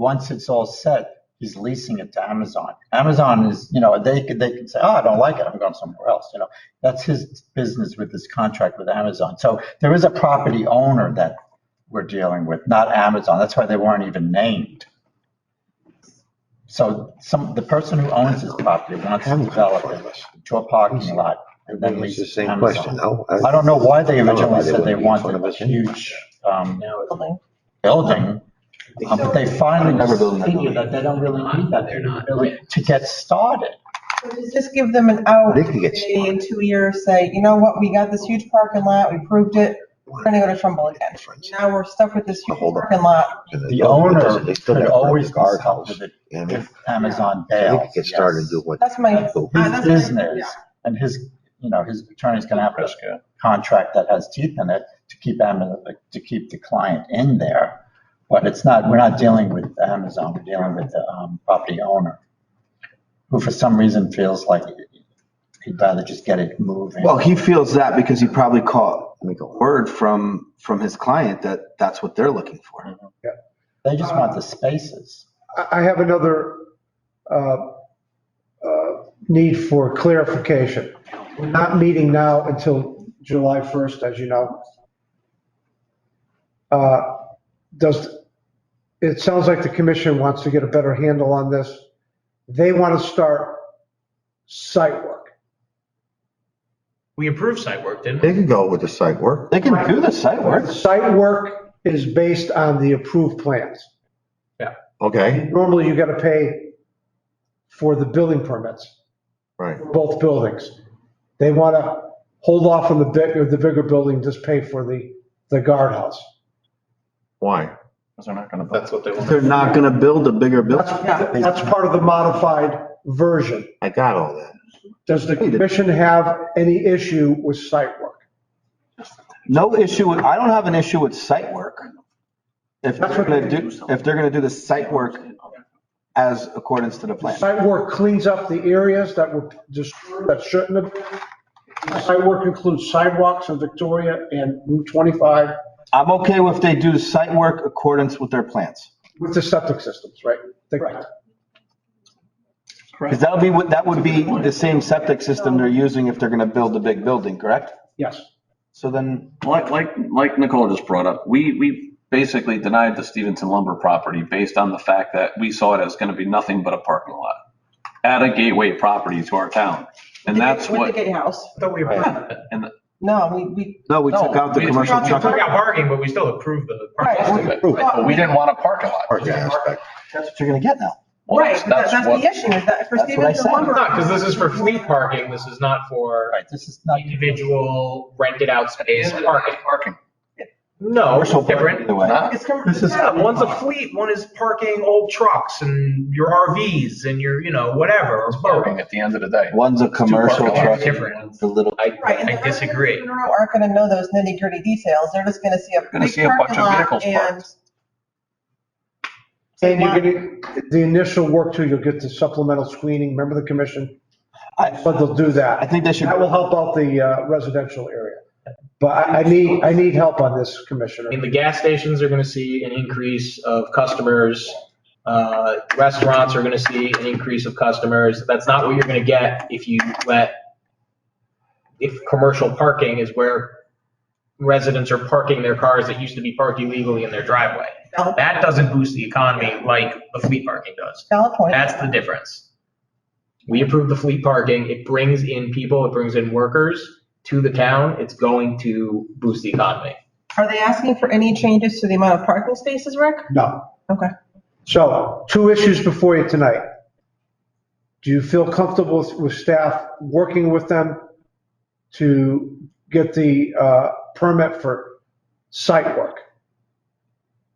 once it's all set, he's leasing it to Amazon. Amazon is, you know, they could, they could say, oh, I don't like it. I'm going somewhere else. You know, that's his business with this contract with Amazon. So there is a property owner that we're dealing with, not Amazon. That's why they weren't even named. So some, the person who owns this property wants to develop it to a parking lot and then It's lease the it to same Amazon. question, no? I don't know why they I don't know why originally they said they wouldn't be in wanted front of a us. huge um, building, um, but they finally Never building that figured building. that they don't really need that building to get started. So does this give them an out? They could get maybe In two years, say, you know what, we got this huge parking lot, we proved it, we're gonna go to Trumbull again. Difference. Now we're stuck with this huge Hold on. parking lot. The owner They still could gotta always run be the stopped guardhouse. with it You know what I mean? if Amazon They bails. could get started and yes. do what. That's my, Cool. Ah, that's His my- business yeah. and his, you know, his attorney's gonna have a contract that has teeth in it to keep Amazon, to keep the client in there. But it's not, we're not dealing with Amazon, we're dealing with the um, property owner, who for some reason feels like he'd rather just get it moving. Well, he feels that because he probably caught word from, from his client that that's what they're looking for. They just want the spaces. I I have another uh, uh, need for clarification. We're not meeting now until July 1st, as you know. Uh, Does, it sounds like the commission wants to get a better handle on this. They want to start site work. We approved site work, didn't They we? can go with the site work. They can do the site work. Site work is based on the approved plans. Okay, Normally, you got to pay for the building permits. right. for both buildings. They want to hold off on the big, the bigger building, just pay for the, the guardhouse. Why? That's what they want. They're not gonna build a bigger building. That's, that's part of the modified version. I got all that. Does the commission have any issue with site work? No issue, with- I don't have an issue with site work. If they're That's what gonna they do, if they're gonna do the site work as accordance to the plan. Site work cleans up the areas that were destroyed, that shouldn't have. been. Site work includes sidewalks in Victoria and Route 25 I'm okay with they do site work accordance with their plans. with the septic systems, right? They- Cause that'll be, what that would be the same septic system they're using if they're gonna build the big building, correct? Yes. So then, Like, like, like Nicole just brought up, we, we basically denied the Stevenson lumber property based on the fact that we saw it as gonna be nothing but a parking lot. Add a gateway property to our town. And that's With what, the gatehouse. But we approved it. and No, we, we, no, we took out the we- commercial we- We took truck. out parking, but we still approved the Right. parking. most of it, but we didn't want a parking lot. Parking aspect. That's what you're gonna get now. Well, right, but that- that's what- the issue, is that for That's what I said. Stevenson It's lumber. not, because this is for fleet parking. This is not for Right, this is not. individual rented out space It's parking. Parking. No, it's Commercial parking different. either way. Nah. It's com- This is- Yeah, one's a fleet, one is parking old trucks and your RVs and your, you know, whatever, or both. Parking at the end of the day. One's a commercial Two parking truck, lots Different. the little. Right. and I the residents disagree. in Monroe Aren't gonna know those nitty gritty details. They're just gonna see a Gonna big see a bunch parking of lot vehicles parked. and. And you're gonna, the initial work too, you'll get the supplemental screening, remember the commission? I- But they'll do I that. think they should. That will help out the uh, residential area. But I I need, I need help on this, I mean, Commissioner. the gas stations are going to see an increase of customers. Uh, Restaurants are going to see an increase of customers. That's not what you're going to get if you let, if commercial parking is where residents are parking their cars that used to be parked illegally in their driveway. Valid- That doesn't boost the economy like the fleet parking does. Valid point. That's the difference. We approve the fleet parking. It brings in people, it brings in workers to the town. It's going to boost the economy. Are they asking for any changes to the amount of parking spaces, Rick? No. Okay. So two issues before you tonight. Do you feel comfortable with- with staff working with them to get the uh, permit for site work?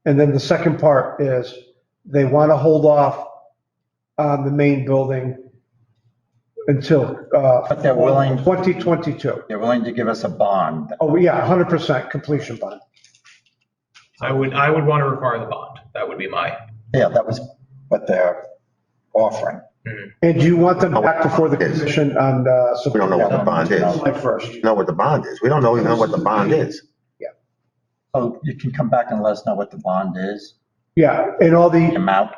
And then the second part is they want to hold off on the main building until. uh, But they're willing- 2022. They're willing to give us a bond. Oh, yeah, 100% completion bond. I would, I would want to require the bond. That would be my. Yeah, that was what they're offering. And do you want them back before the commission on uh, Oh, We don't know what the bond is. July 1st? Know what the bond is. We don't know even what the bond is. So you can come back and let us know what the bond is. Yeah, and all the, amount